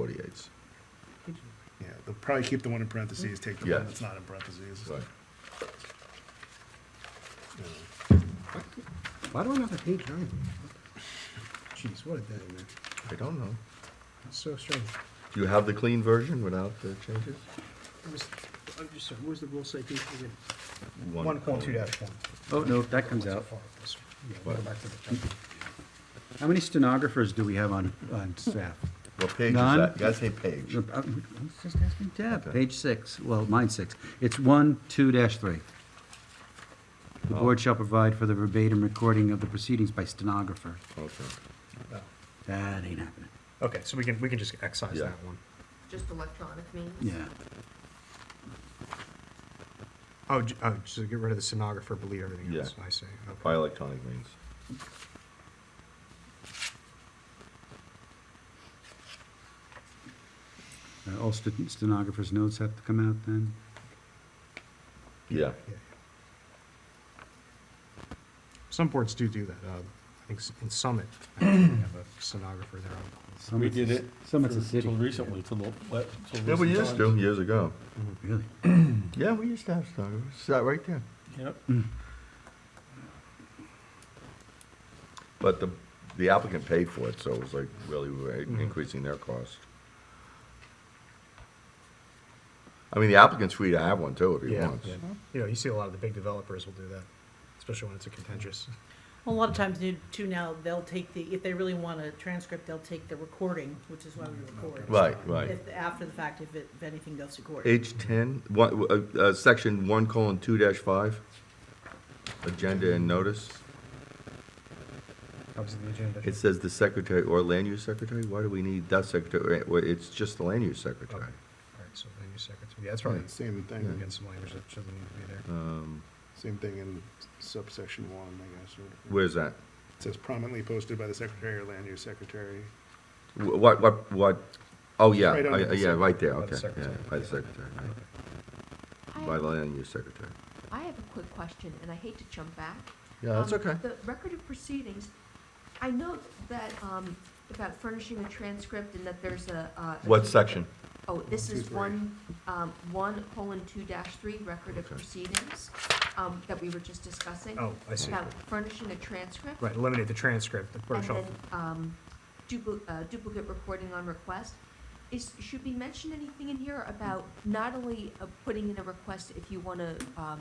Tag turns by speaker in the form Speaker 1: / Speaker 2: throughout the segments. Speaker 1: 48s.
Speaker 2: Yeah, they'll probably keep the one in parentheses, take the
Speaker 1: Yeah.
Speaker 2: one that's not in parentheses.
Speaker 1: Right.
Speaker 3: Why do I not have page nine? Jeez, what a day, man.
Speaker 1: I don't know.
Speaker 3: That's so strange.
Speaker 1: Do you have the clean version without the changes?
Speaker 3: I was, I'm just sorry, where's the rule say page again?
Speaker 1: One point two dash.
Speaker 4: Oh, no, that comes out.
Speaker 1: What?
Speaker 4: How many stenographers do we have on, on staff?
Speaker 1: What page is
Speaker 4: None.
Speaker 1: that? You gotta say page.
Speaker 4: Uh, I was just asking Deb.
Speaker 1: Okay.
Speaker 4: Page six, well, mine six. It's one, two dash three. The board shall provide for the verbatim recording of the proceedings by stenographer.
Speaker 1: Okay.
Speaker 4: That ain't happening.
Speaker 5: Okay, so we can, we can just excise
Speaker 1: Yeah.
Speaker 5: that one.
Speaker 6: Just electronic means?
Speaker 4: Yeah.
Speaker 5: Oh, j- oh, so get rid of the stenographer, delete everything
Speaker 1: Yeah.
Speaker 5: else, I see. Okay.
Speaker 1: By electronic means.
Speaker 4: Uh, All sten- stenographers' notes have to come out then?
Speaker 1: Yeah.
Speaker 5: Yeah. Some boards do do that, uh, I think s- in Summit, I think they have a stenographer there.
Speaker 7: We did it.
Speaker 4: Summit's a
Speaker 7: for-
Speaker 4: city.
Speaker 7: Till recently, till the, le- till.
Speaker 1: Yeah, we
Speaker 7: recent
Speaker 1: used to,
Speaker 7: times.
Speaker 1: years ago.
Speaker 4: Really?
Speaker 1: Yeah, we used to have stenographers. It's that right there.
Speaker 7: Yep.
Speaker 1: But the, the applicant paid for it, so it was like really we were increasing their cost. I mean, the applicant's free to have one too if he
Speaker 5: Yeah,
Speaker 1: wants.
Speaker 5: yeah. you know, you see a lot of the big developers will do that, especially when it's a contentious.
Speaker 8: A lot of times, they do too, now, they'll take the, if they really want a transcript, they'll take the recording, which is why we record.
Speaker 1: Mm, Right, right.
Speaker 8: If, after the fact, if it, if anything goes to court.
Speaker 1: H ten, one, uh, uh, section one colon two dash five, agenda and notice.
Speaker 5: Obviously, the agenda.
Speaker 1: It says the secretary or land use secretary, why do we need that secretary, Well, it's just the land use
Speaker 5: Okay. All
Speaker 1: secretary.
Speaker 5: right, so then you secretary, yeah, that's probably
Speaker 1: Yeah.
Speaker 2: Same thing,
Speaker 5: against some language that shouldn't need to be there.
Speaker 1: Um,
Speaker 2: same thing in subsection one, I guess. or-
Speaker 1: where's that?
Speaker 2: It says prominently posted by the secretary or land use secretary.
Speaker 1: Wh- What, what, what, oh, yeah,
Speaker 2: Right under
Speaker 1: I-
Speaker 2: the
Speaker 1: yeah,
Speaker 2: sec-
Speaker 1: right there,
Speaker 5: by the
Speaker 1: okay, yeah,
Speaker 5: secretary.
Speaker 1: by the secretary, right.
Speaker 6: I
Speaker 1: by
Speaker 6: have,
Speaker 1: the land use secretary.
Speaker 6: I have a quick question, and I hate to jump back.
Speaker 1: Yeah, that's
Speaker 6: Um,
Speaker 1: okay.
Speaker 6: The record of proceedings, I know that, um, about furnishing a transcript and that there's a, uh. a
Speaker 1: What
Speaker 6: deed-
Speaker 1: section?
Speaker 6: Oh, this
Speaker 2: Two,
Speaker 6: is
Speaker 2: three.
Speaker 6: one, um, one colon two dash three, record of
Speaker 1: Okay.
Speaker 6: proceedings, um, that we were just discussing.
Speaker 5: Oh, I see.
Speaker 6: About furnishing a transcript.
Speaker 5: Right, eliminate the transcript, the
Speaker 6: And
Speaker 5: first
Speaker 6: then, um, dupli- uh, duplicate recording on request. Is, should we mention anything in here about not only uh, putting in a request if you want to, um,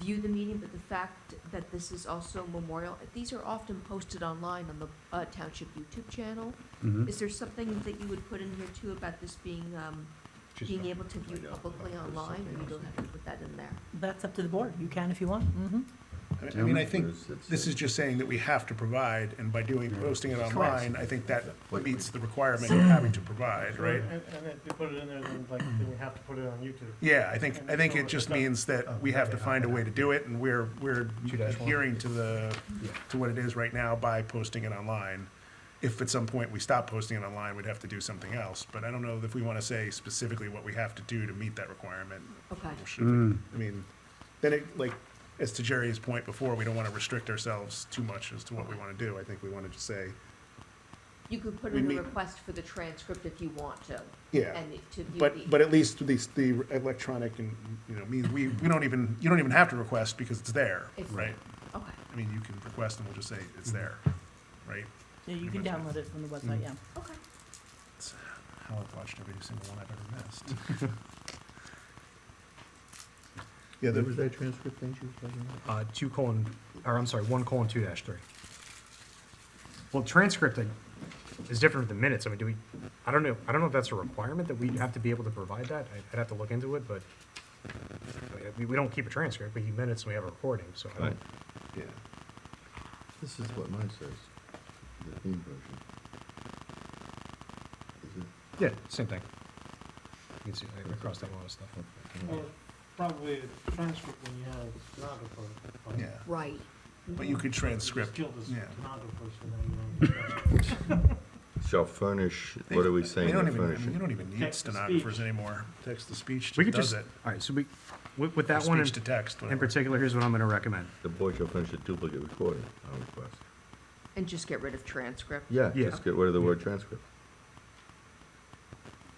Speaker 6: view the meeting, but the fact that this is also memorial? These are often posted online on the uh, township YouTube channel.
Speaker 4: Mhm.
Speaker 6: Is there something that you would put in here too about this being, um, being able to view publicly online? Or you don't have to put that in there?
Speaker 8: That's up to the board, you can if you want, mm-hmm.
Speaker 2: I mean- I mean, I think
Speaker 1: It's- it's-
Speaker 2: this is just saying that we have to provide, and by doing, posting it online, I think that meets the requirement of having to provide, right?
Speaker 9: And, and if you put it in there, then like, then you have to put it on YouTube.
Speaker 2: Yeah, I think, I think it just means that we have to find a way to do it, and we're, we're adhering to the, to what it is right now by posting it online. If at some point we stop posting it online, we'd have to do something else, but I don't know if we wanna say specifically what we have to do to meet that requirement.
Speaker 6: Okay.
Speaker 2: or should we? I mean, then it, like, as to Jerry's point before, we don't wanna restrict ourselves too much as to what we wanna do, I think we wanna just say,
Speaker 6: You could put
Speaker 2: We
Speaker 6: in
Speaker 2: meet-
Speaker 6: a request for the transcript if you want to.
Speaker 2: Yeah,
Speaker 6: And to view the-
Speaker 2: But, but at least the, the electronic and, you know, means, we, we don't even, you don't even have to request because it's there,
Speaker 6: It's-
Speaker 2: right?
Speaker 6: Okay.
Speaker 2: I mean, you can request and we'll just say it's there, right?
Speaker 8: Yeah, you can
Speaker 1: Mm-hmm.
Speaker 8: download it from the website,
Speaker 1: Mm.
Speaker 8: yeah.
Speaker 6: Okay.
Speaker 2: It's How I've watched every single one I've ever missed. Yeah,
Speaker 1: Where
Speaker 2: the-
Speaker 1: was that transcript thing she was talking about?
Speaker 5: Uh, two colon, or I'm sorry, one colon two dash three. Well, transcript I- is different than minutes. I mean, do we, I don't know, I don't know if that's a requirement that we have to be able to provide that. I- I'd have to look into it, but uh, we, we don't keep a transcript, we keep minutes and we have a recording, so. I don't-
Speaker 1: Right.
Speaker 2: yeah.
Speaker 1: This is what mine says, the theme version. Is it-
Speaker 5: Yeah, same thing. You can see, I crossed out a lot of stuff.
Speaker 9: Well, probably a transcript when you have stenographer. but-
Speaker 2: Yeah,
Speaker 6: Right.
Speaker 2: but you could transcript,
Speaker 9: You just killed the
Speaker 2: yeah.
Speaker 9: stenographer, so now you don't. have a transcript.
Speaker 1: Shall furnish, what are we
Speaker 2: We
Speaker 1: saying
Speaker 2: don't
Speaker 1: to
Speaker 2: even, I mean, you
Speaker 1: furnish?
Speaker 2: don't even need
Speaker 9: Text to
Speaker 2: stenographers
Speaker 9: speech.
Speaker 2: anymore. Text to speech
Speaker 5: We could
Speaker 2: just does
Speaker 5: just,
Speaker 2: it.
Speaker 5: all right, so we, with, with that
Speaker 2: Or
Speaker 5: one
Speaker 2: Speech to
Speaker 5: in,
Speaker 2: text,
Speaker 5: in
Speaker 2: whatever.
Speaker 5: particular, here's what I'm gonna recommend.
Speaker 1: The board shall furnish a duplicate recording on request.
Speaker 6: And just get rid of transcript?
Speaker 1: Yeah,
Speaker 5: Yeah.
Speaker 1: just get rid of the word transcript.